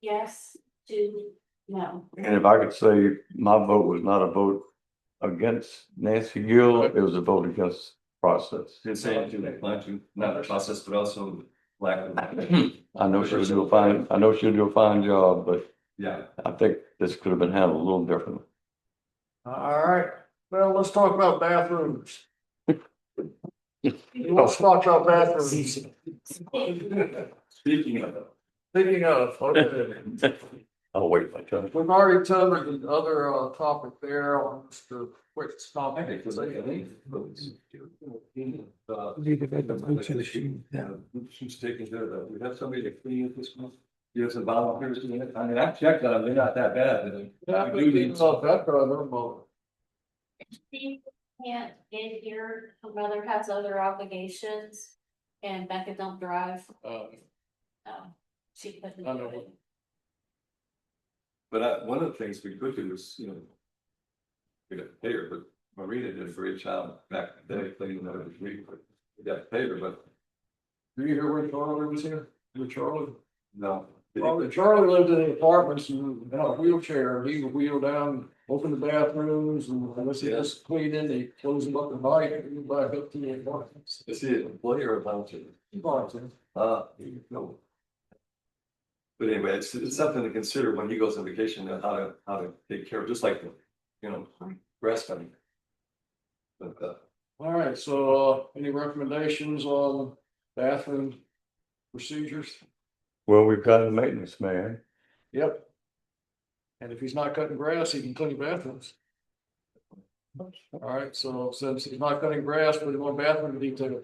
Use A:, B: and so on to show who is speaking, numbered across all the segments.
A: yes to no.
B: And if I could say, my vote was not a vote against Nancy Gill, it was a vote against process.
C: Did say to not to, not the process, but also lack of,
B: I know she'll do a fine, I know she'll do a fine job, but
C: yeah.
B: I think this could have been handled a little differently.
D: All right, well, let's talk about bathrooms. Let's talk about bathrooms.
C: Speaking of.
D: Thinking of, okay.
B: I'll wait my turn.
D: We've already covered the other uh topic there on Mr. Quick's
C: I
D: topic.
C: think, because I think. uh,
E: Need to make a motion to shoot
C: Yeah,
E: down.
C: who's taking care of that? We have somebody to clean it this month. You have some volunteers doing it. I mean, I've checked on them. They're not that bad. but
D: Yeah, I think it's all that, but I don't know.
A: Steve can't get here, her mother has other obligations and Becca don't drive,
D: Uh,
A: um, she couldn't
D: I
A: do
D: know.
A: it.
C: But I, one of the things we could do is, you know. We got paid her, but Marina did a great job back in the day cleaning that every week. but We got paid her, but.
D: Do you hear where Charlie was here? Where Charlie?
C: No.
D: Well, Charlie lived in the apartments and had a wheelchair, he would wheel down, open the bathrooms and unless he just cleaned in, they close them up and buy it, and back up to the apartments.
C: Is he an employee or a volunteer?
D: He bought it.
C: Uh, no. But anyway, it's, it's something to consider when he goes on vacation, uh, how to, how to take care of, just like, you know, breast cutting. But, uh,
D: All right, so uh, any recommendations on bathroom procedures?
B: Well, we've got a maintenance man.
D: Yep. And if he's not cutting grass, he can clean bathrooms. All right, so since he's not cutting grass, put him on bathroom detail.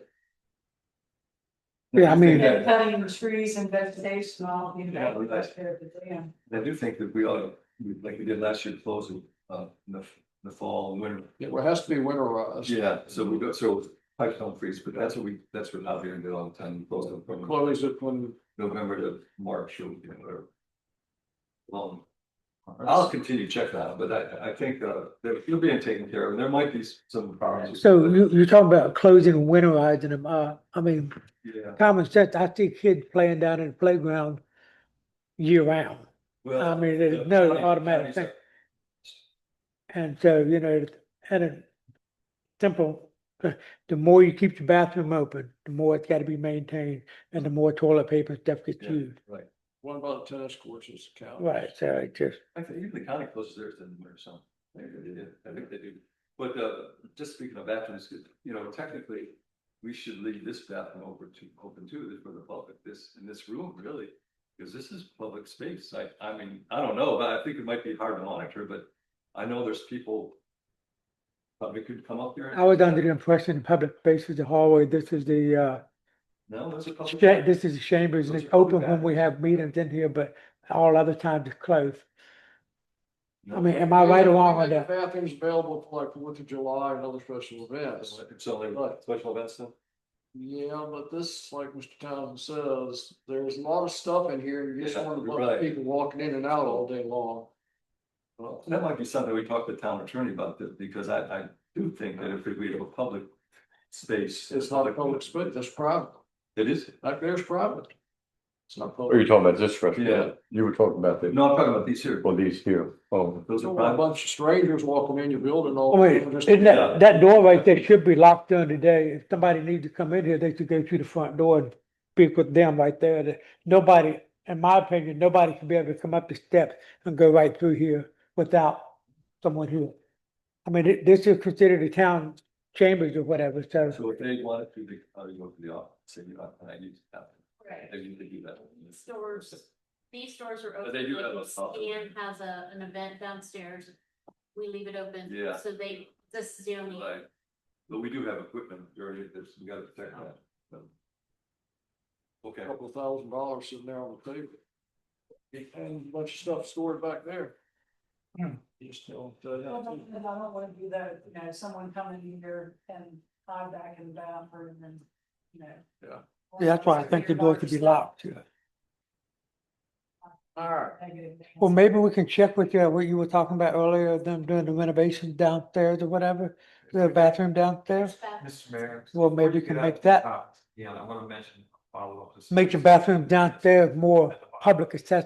E: Yeah, I mean-
F: Yeah, cutting the trees and vegetation, all, you
C: Yeah,
F: know,
C: we like-
F: that's there, but yeah.
C: I do think that we ought to, like we did last year, close in, uh, in the, in the fall and winter.
D: It has to be winterized.
C: Yeah, so we go, so pipes don't freeze, but that's what we, that's what out here in the time, we close them from
D: Chloe's it when.
C: November to March, or you know, or Long. I'll continue to check that, out, but I, I think, uh, that you're being taken care of, and there might be some problems.
E: So you, you're talking about closing and winterizing them. Uh, I mean,
C: Yeah,
E: common sense, I see kids playing down in the playground year round.
C: well.
E: I mean,
C: the
E: there's no
C: county-
E: automatic
C: counties
E: thing.
C: are-
E: And so, you know, and a simple, the more you keep your bathroom open, the more it's gotta be maintained and the more toilet paper and stuff gets
C: Yeah.
E: used.
C: Right,
D: What about tennis courses, Cal?
E: Right, so it just,
C: I think even the county closes theirs in the winter, so maybe they did, I think they do. But uh, just speaking of bathrooms, 'cause, you know, technically, we should leave this bathroom over to, open to, for the public, this, in this room, really. Because this is public space, I, I mean, I don't know, but I think it might be hard to monitor, but I know there's people. Probably could come up here. and-
E: I was under the impression the public space is the hallway, this is the, uh,
C: No, there's a public.
E: Yeah, this is the chambers, and
C: Those
E: it's
C: are really
E: open when
C: bad.
E: we have meetings in here, but all other times it's closed.
C: No.
E: I mean, am I right or wrong on
D: They make
E: that?
D: the Bathrooms available for like Fourth of July and other special events.
C: It's only like special events though.
D: Yeah, but this, like Mr. Townsend says, there's a lot of stuff in here, and you just
C: Yeah,
D: want a
C: you're
D: bunch of
C: right.
D: people walking in and out all day long.
C: Well, that might be something we talk to the town attorney about, that- because I, I do think that if we have a public space.
D: It's not a public space, that's private,
C: It is,
D: like there's private. It's not
B: Or you
D: public.
B: talking about this
C: Yeah.
B: restaurant? You were talking about the,
C: no, I'm talking about these here,
B: well, these here. Oh,
C: those
D: You
C: are
D: don't want a
C: private,
D: bunch of strangers walking in your building
E: I
D: all.
E: mean, Oh, isn't
C: Yeah.
E: that, that door right there should be locked during the day. If somebody needs to come in here, they should go through the front door and speak with them right there. That Nobody, in my opinion, nobody should be able to come up the steps and go right through here without someone here. I mean, thi- this is considered the town chambers or whatever, so.
C: so if they wanted to, they, uh, you go to the office, say, you know, I need to have,
A: Right.
C: they need to do that.
A: Stores, these stores are
C: But
A: open.
C: they do have a pop-up.
A: Stan has a, an event downstairs. We leave it open.
C: Yeah.
A: So they, this is the only,
C: Right. But we do have equipment, you're, there's, we gotta protect that. so. Okay,
D: A Couple thousand dollars sitting there on the table. And a bunch of stuff stored back there.
E: Hmm.
D: You just don't, uh,
F: I don't I don't wanna do that, you know, someone coming here and hide back in the bathroom and, you know.
D: Yeah.
E: Yeah, that's why I think the door should be locked.
D: all right,
F: Negative things.
E: Well, maybe we can check with you, what you were talking about earlier, them doing the renovations downstairs or whatever, the bathroom downstairs.
G: Mr. Mayor.
E: Well, maybe you can
G: before get
E: make
G: out of the
E: that-
G: top, Yeah, I want to mention, follow up. to-
E: Make the bathroom downstairs more public accessible.